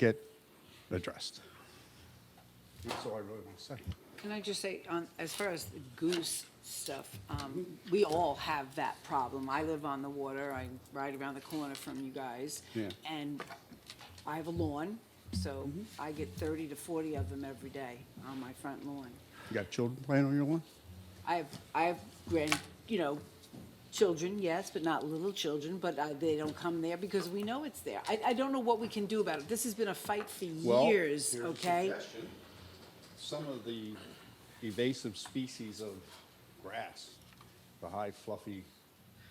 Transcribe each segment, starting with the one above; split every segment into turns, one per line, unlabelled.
get addressed. That's all I really want to say.
Can I just say, on, as far as the goose stuff, um, we all have that problem. I live on the water, I ride around the corner from you guys.
Yeah.
And I have a lawn, so
Mm-hmm.
I get thirty to forty of them every day on my front lawn.
You got children playing on your lawn?
I have, I have grand, you know, children, yes, but not little children, but uh, they don't come there because we know it's there. I, I don't know what we can do about it. This has been a fight for
Well,
years,
here's a
okay?
suggestion. Some of the invasive species of grass, the high fluffy.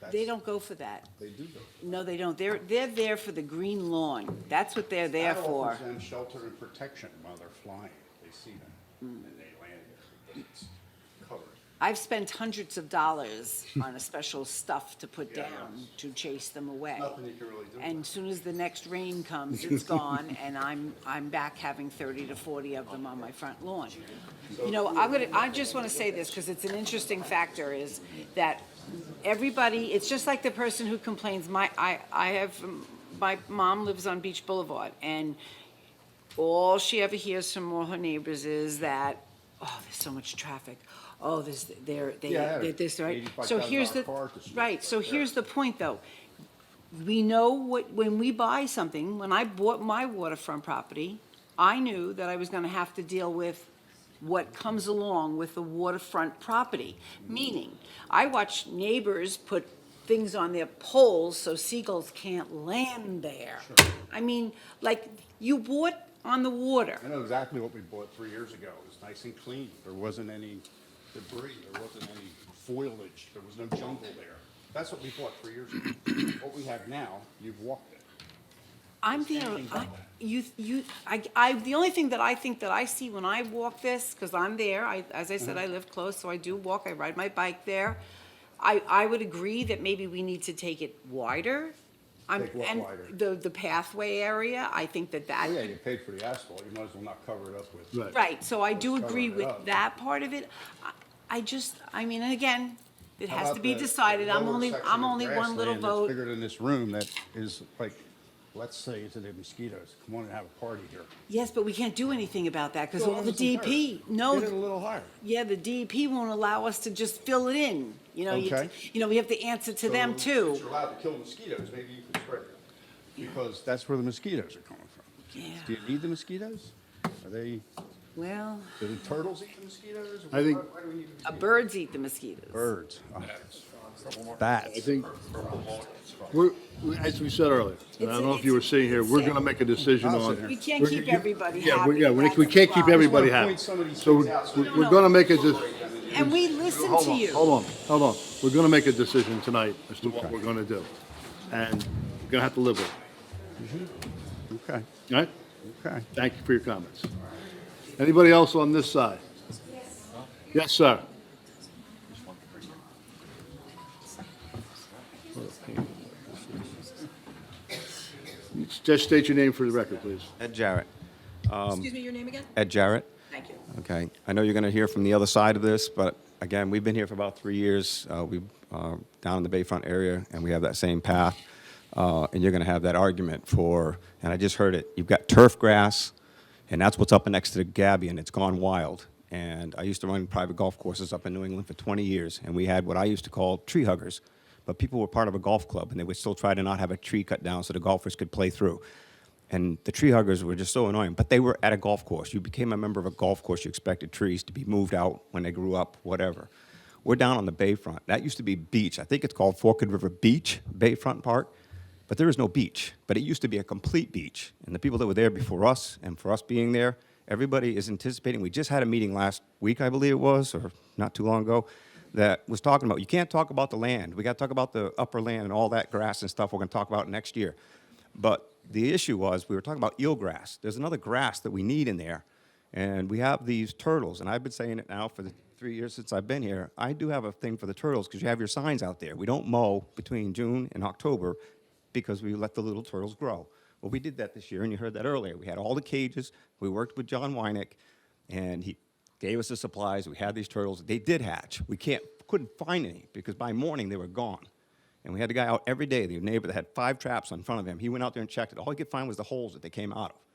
They
that's-
don't go for that.
They do though.
No, they don't. They're, they're there for the green lawn. That's what they're there
That
for.
offers them shelter and protection while they're flying. They see them
Mm.
and they land there because it's covered.
I've spent hundreds of dollars on a special stuff to put
Yeah.
down to chase them away.
Nothing you can really do
And
about
soon as the next rain comes, it's gone, and I'm, I'm back having thirty to forty of them on my front lawn. You know, I'm gonna, I just wanna say this, because it's an interesting factor, is that everybody, it's just like the person who complains, my, I, I have, um, my mom lives on Beach Boulevard, and all she ever hears from all her neighbors is that, oh, there's so much traffic. Oh, there's, they're, they,
Yeah,
they're this, right? So
85,000
here's the,
car this year.
right, so
Yeah.
here's the point, though. We know what, when we buy something, when I bought my waterfront property, I knew that I was gonna have to deal with what comes along with the waterfront property. Meaning, I watched neighbors put things on their poles so seagulls can't land there. I mean, like, you bought on the water.
I know exactly what we bought three years ago. It was nice and clean. There wasn't any debris, there wasn't any foliage, there was no jungle there. That's what we bought three years ago. What we have now, you've walked it.
I'm there, I, you, you, I, I, the only thing that I think that I see when I walk this, because I'm there, I, as I said,
Mm-hmm.
I live close, so I do walk, I ride my bike there. I, I would agree that maybe we need to take it wider. I'm-
Take what
and
wider?
The, the pathway area, I think that that
Oh yeah, you paid for the asphalt, you might as well not cover it up with.
Right, so I do
Let's cover
agree
it
with
up.
that part of it. I- I just, I mean, and again, it
How
has to
about
be
the-
decided,
the
I'm
lower
only,
section
I'm
of
only one
grassland
little
that's
vote.
Bigger than this room that is like, let's say to the mosquitoes, come on and have a party here.
Yes, but we can't do anything about that, because
Go
all
up
the
some dirt.
DP, no.
Get it a little higher.
Yeah, the DEP won't allow us to just fill it in, you know, you,
Okay.
you know, we have to answer to
So,
them
If
too.
you're allowed to kill mosquitoes, maybe you could spread them, because that's where the mosquitoes are coming from.
Yeah.
Do you need the mosquitoes? Are they,
Well,
do the turtles eat the mosquitoes?
I think-
Why- why do we need the
uh,
mosquitoes?
birds eat the mosquitoes.
Birds. Oh, Bats.
I think, we're, we- as we said earlier, and I don't know if you were sitting here, we're gonna make a decision
I'll sit
on.
here.
We can't
We're-
keep
you-
everybody
yeah, we-
happy,
Yeah, we,
that's
we can't
the
keep
problem.
everybody
Just wanna
happy.
point some of these
So
things
we-
out so
we-
we
we're
know.
gonna make a decision.
And we listen
Hold
to
on,
you.
Hold on, hold on. We're gonna make a decision tonight as to what we're gonna do. And we're gonna have to live with it,
Okay,
all right?
okay.
Thank you for your comments. Anybody else on this side? Yes, sir. Just state your name for the record, please.
Ed Jarrett. Um,
Excuse me, your name again?
Ed Jarrett.
Thank you.
Okay. I know you're going to hear from the other side of this, but again, we've been here for about three years. Uh, we uh, down in the Bayfront area, and we have that same path. Uh, and you're going to have that argument for, and I just heard it. You've got turf grass, and that's what's up next to the Gabby, and it's gone wild. And I used to run private golf courses up in New England for 20 years, and we had what I used to call tree huggers. But people were part of a golf club, and they would still try to not have a tree cut down so the golfers could play through. And the tree huggers were just so annoying, but they were at a golf course. You became a member of a golf course, you expected trees to be moved out when they grew up, whatever. We're down on the bayfront. That used to be beach. I think it's called Forked River Beach, Bayfront Park, but there is no beach. But it used to be a complete beach. And the people that were there before us and for us being there, everybody is anticipating. We just had a meeting last week, I believe it was, or not too long ago, that was talking about you can't talk about the land. We got to talk about the upper land and all that grass and stuff we're going to talk about next year. But the issue was, we were talking about eelgrass. There's another grass that we need in there. And we have these turtles, and I've been saying it now for the three years since I've been here. I do have a thing for the turtles because you have your signs out there. We don't mow between June and October because we let the little turtles grow. Well, we did that this year, and you heard that earlier. We had all the cages. We worked with John Wynick, and he gave us the supplies. We had these turtles. They did hatch. We can't, couldn't find any because by morning they were gone. And we had the guy out every day, the neighbor that had five traps in front of him. He went out there and checked it. All he could find was the holes that they came out of.